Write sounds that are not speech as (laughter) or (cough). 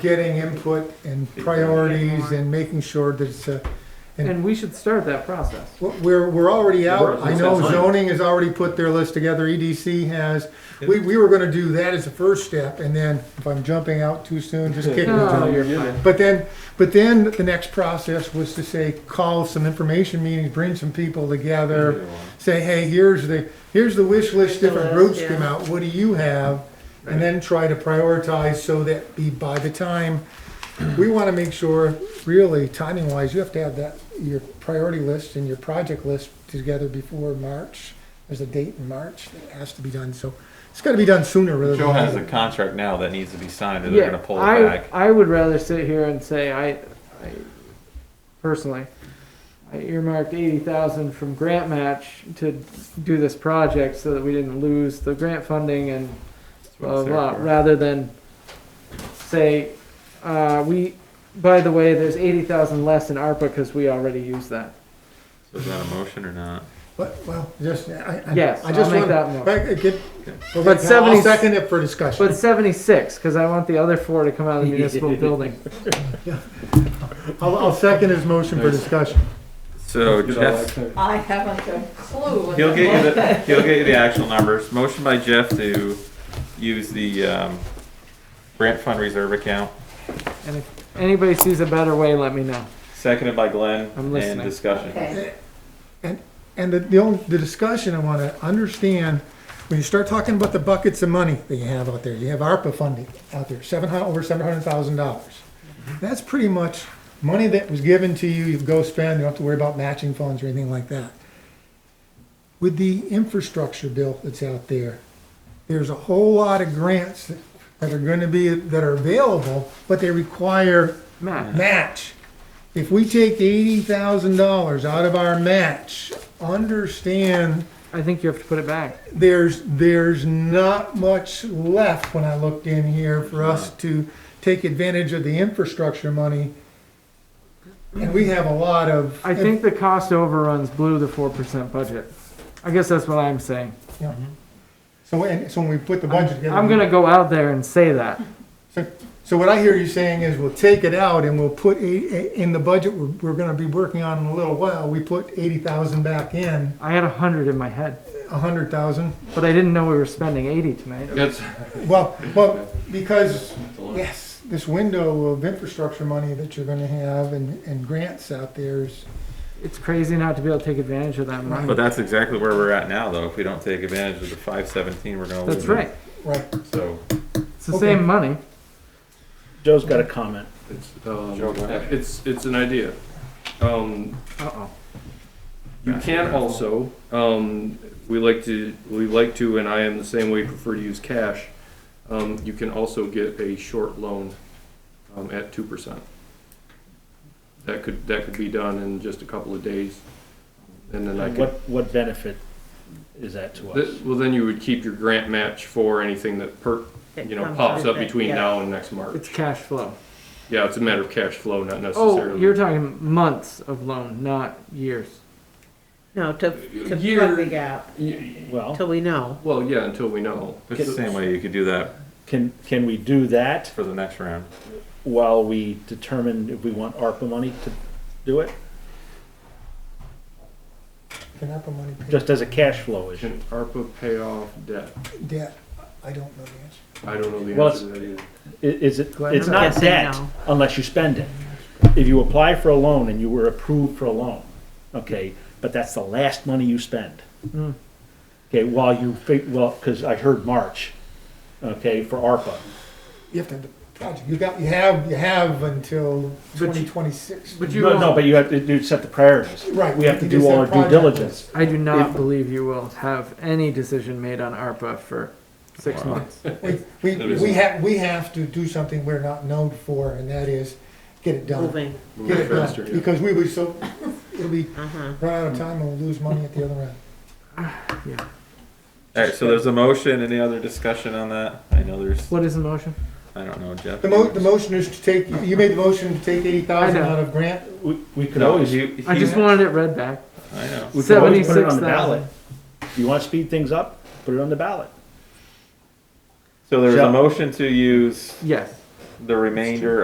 getting input and priorities and making sure that it's a, And- And we should start that process. we're, we're already out. I know We're- zoning has already put their list together, EDC has. We, we were gonna do that as a first step, and then, if I'm jumping out too soon, just kick me. No, John. you're fine. But then, but then the next process was to say, call some information meetings, bring some people together, say, hey, here's the, here's the wish list, different list, groups yeah. come out, what do you have? And then try to prioritize so that be, by the time, we wanna make sure, really, timing wise, you have to have that, your priority list and your project list together before March. There's a date in March that has to be done, so it's gotta be done sooner rather than Joe has a later. contract now that needs to be signed, and they're Yeah, gonna pull it I, back. I would rather sit here and say, I, I personally, I earmarked eighty thousand from grant match to do this project so that we didn't lose the grant funding and That's what blah, it's there blah, for. rather than say, uh, we, by the way, there's eighty thousand less in ARPA because we already used that. So Is that a motion or not? But, well, just, I, I. Yes, I just I'll make wanna- that motion. Right, uh, get- okay, But now 70 I'll second it for discussion. But seventy-six, cause I want the other four to come out of the (laughs) municipal building. I'll, I'll second his motion for Nice. discussion. So Jeff, I haven't a clue. what he'll the get you book- the, he'll get you the actual numbers. Motion by Jeff to use the, um, grant fund reserve account, And if anybody sees a better way, let me know. seconded by Glenn, I'm and listening. discussion. Okay. And the, the only, the discussion I wanna understand, when you start talking about the buckets of money that you have out there, you have ARPA funding out there, seven hun, over seven hundred thousand dollars. That's pretty much money that was given to you, you go spend, you don't have to worry about matching funds or anything like that. With the infrastructure bill that's out there, there's a whole lot of grants that- that are gonna be, that are available, but they require Matt, match. If we take eighty thousand dollars out of our match, understand I think you have to put it back. there's, there's not much left when I looked in here for us to take advantage of the infrastructure money. And we have a lot of. I think the cost overruns blew the four percent budget. I guess that's what I'm saying. Yeah. So, and, so when we put the budget together. I'm gonna go out there and say that. So, so what I hear you saying is we'll take it out and we'll put eight, eh, in the budget we're, we're gonna be working on in a little while, we put eighty thousand back in, I had a hundred in my head, a hundred thousand. but I didn't know we were spending eighty tonight. That's, Well, well, because, yes, this window of infrastructure money that you're gonna have and, and grants out there is, It's crazy not to be able to take advantage of that money. but that's exactly where we're at now, though. If we don't take advantage of the five seventeen, we're gonna lose. That's it. right. right, So. It's the Okay. same money. Joe's got a comment. It's, um, Joe, go ahead. it's, it's an idea. Um, Uh-oh. you can also, um, we like to, we like to, and I am the same way, prefer to use cash. Um, you can also get a short loan, um, at two percent. That could, that could be done in just a couple of days. And then I could, What, what benefit is that to us? th- well, then you would keep your grant match for anything that per, That you know, comes pops with up it, between yeah. now and next March. It's cash flow. Yeah, it's a matter of cash flow, not Oh, necessarily. you're talking months of loan, not years. No, to, to plug Year- the gap, Well, till we know. Well, yeah, until we know. It's the same way you could do that can, can we do that for the next round. while we determine if we want ARPA money to do it? can ARPA money pay Just as a cash flow issue? Can ARPA pay off debt? debt? I don't know the I don't know the Well, answer to that either. I- Is it, Glenn, it's I'm not guessing debt no. unless you spend it. If you apply for a loan and you were approved for a loan, okay, but that's the last money you spend. Mm. Okay, while you, fi- well, because I heard March, okay, for ARPA. answer. You have to, have the project, you got, you have, you have until But twenty you- twenty-six. But you No, no, won't, but you have to do, set the priorities. Right. We have to you do just all our due project diligence. I do not believe you will have any decision made on ARPA for six Wow. months. We, we, That is- we have, we have to do something we're not known for, and that is get it done. Moving, Get it Moving faster, done, yeah. because we would so, it'll be uh-huh. run out of time and we'll lose money at the other end. All right, so there's a motion. Any other discussion on that? I know there's, What is the motion? I don't know, Jeff. The mo, the motion is to take, you made the motion to take eighty thousand out of grant, We, we could No, always, we he, I he- just wanted it read back. I know. could always put it on 76,000. the ballot. You wanna speed things up, put it on the ballot. So there was a Shall- motion to use Yes. the remainder